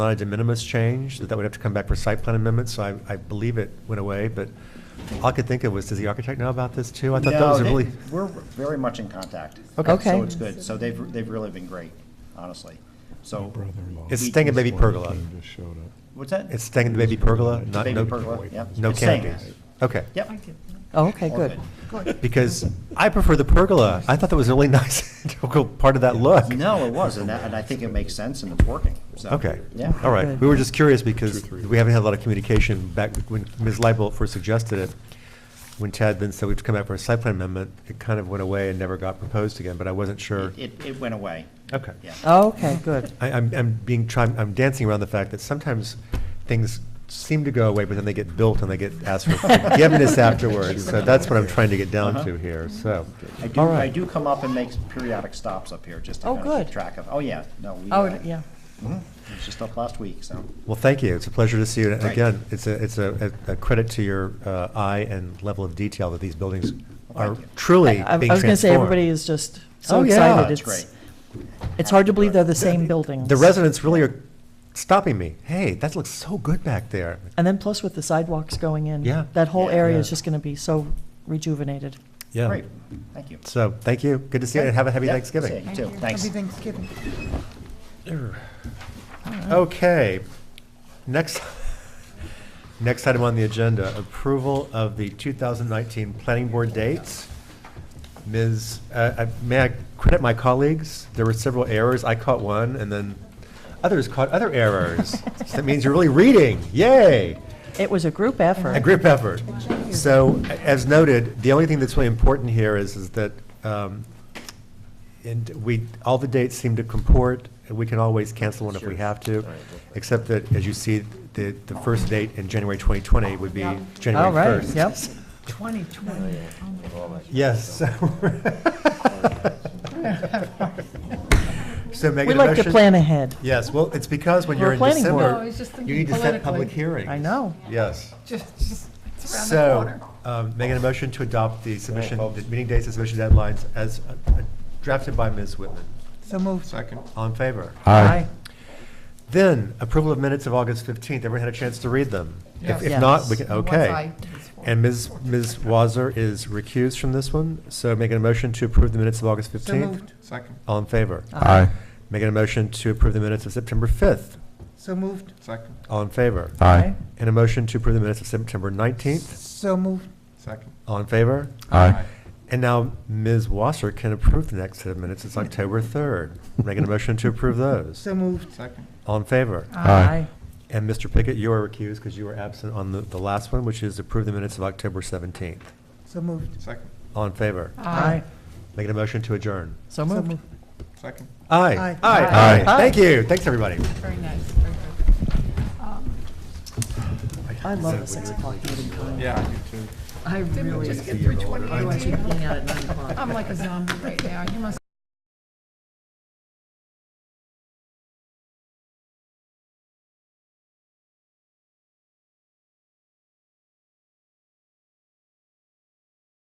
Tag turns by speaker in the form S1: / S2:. S1: Not a uh, de minimis change, that that would have to come back for site plan amendments, so I, I believe it went away, but all I could think of was, does the architect know about this too? I thought that
S2: No,
S1: was a
S2: they-
S1: really,
S2: We're very much in contact.
S1: Okay. Okay.
S2: So it's good. So they've, they've really been great, honestly. So,
S1: It's stinging baby pergola.
S2: what's that?
S1: it's staying in the baby pergola, not,
S2: Baby
S1: no,
S2: pergola, yep.
S1: no
S2: It's staying.
S1: canopies? Okay.
S2: Yep.
S3: Oh, okay,
S2: all
S3: good.
S1: Because I prefer the pergola. I thought that was a really nice integral part of that look.
S2: No, it was, and that, and I think it makes sense and it's working, so.
S1: Okay.
S2: Yeah.
S1: All right.
S3: Good.
S1: We were just curious because we haven't had a lot of communication back when Ms. Leibert first suggested it. When Tad then said we'd come out for a site plan amendment, it kind of went away and never got proposed again, but I wasn't sure.
S2: It, it- it went away,
S1: Okay.
S2: yeah.
S3: Oh, okay, good.
S1: I, I'm, I'm being, trying, I'm dancing around the fact that sometimes things seem to go away, but then they get built and they get asked for forgiveness afterwards. So that's what I'm trying to get down to here, so.
S2: Uh-huh. I do,
S1: all
S2: I
S1: right.
S2: do come up and make periodic stops up here, just to
S3: Oh,
S2: kind of
S3: good.
S2: keep track of. Oh, yeah, no, we,
S3: Oh,
S2: uh,
S3: yeah.
S2: it was just up last week, so.
S1: Well, thank you. It's a pleasure to see you. And
S2: Right.
S1: Again, it's a, it's a, a a credit to your uh, eye and level of detail that these buildings are
S2: Thank you.
S1: truly being
S3: I I
S1: transformed.
S3: was going to say, everybody is just so
S1: Oh, yeah.
S3: excited.
S2: That's
S3: It's-
S2: great.
S3: It's hard to believe they're the same buildings.
S1: The residents really are stopping me. Hey, that looks so good back there.
S3: And then plus with the sidewalks going in.
S1: Yeah.
S3: That whole
S2: Yeah.
S3: area
S1: Yeah.
S3: is just going to be so rejuvenated.
S2: Great, thank you.
S1: So, thank you. Good to see you and have a happy
S2: Yep,
S1: Thanksgiving.
S2: see You too, thanks.
S4: Happy Thanksgiving.
S1: Okay, next, next item on the agenda, approval of the 2019 planning board dates. Ms., uh, I- may I credit my colleagues? There were several errors. I caught one, and then others caught other errors. So That means you're really reading. Yay!
S3: It was a group effort.
S1: A group effort. So, a- as noted, the only thing that's really important here is, is that, um, and we, all the dates seem to comport, and we can always cancel one if we have to, except that, as you see, the, the first date in January 2020 would be January
S3: All right,
S1: 1st.
S3: yep.
S4: 2020.
S1: Yes. So make
S3: We
S1: it a
S3: like to
S1: motion-
S3: plan ahead.
S1: Yes, well, it's because when
S3: We're
S1: you're in
S3: a planning board.
S1: December,
S4: No, I was just
S1: you
S4: thinking
S1: need to set public
S4: politically.
S1: hearings.
S3: I know.
S1: Yes.
S4: Just, just, it's around the
S1: So,
S4: corner.
S1: um, making a motion to adopt the submission, the meeting dates and submission deadlines as uh, uh, drafted by Ms. Whitman.
S4: So moved.
S1: All in favor?
S3: Aye.
S1: Then, approval of minutes of August 15th. Everyone had a chance to read them? If if
S3: Yes.
S1: not, we can,
S4: Once
S1: okay.
S4: I-
S1: And Ms. Ms. Wazzer is recused from this one, so making a motion to approve the minutes of August 15th?
S4: moved.
S5: Second.
S1: All in favor?
S3: Aye.
S1: Making a motion to approve the minutes of September 5th.
S4: So moved.
S5: Second.
S1: All in favor?
S3: Aye.
S1: And a motion to approve the minutes of September 19th.
S4: So moved.
S5: Second.
S1: All in favor?
S5: Aye.
S1: And now Ms. Wasser can approve the next set of minutes. It's October 3rd. Making a motion to approve those.
S4: So moved.
S5: Second.
S1: All in favor?
S3: Aye.
S1: And Mr. Pickett, you are recused because you were absent on the, the last one, which is approve the minutes of October 17th.
S4: So moved.
S5: Second.
S1: All in favor?
S3: Aye.
S1: Making a motion to adjourn.
S3: So moved.
S5: Second.
S1: Aye.
S4: Aye.
S1: Aye.
S3: Aye.
S1: Thank you. Thanks, everybody.
S4: Very nice, very good.
S3: I love the six o'clock meeting time.
S5: Yeah, I do too.
S3: I really,
S4: Just get through 2018.
S3: being out at nine o'clock.
S4: I'm like a zombie right now. You must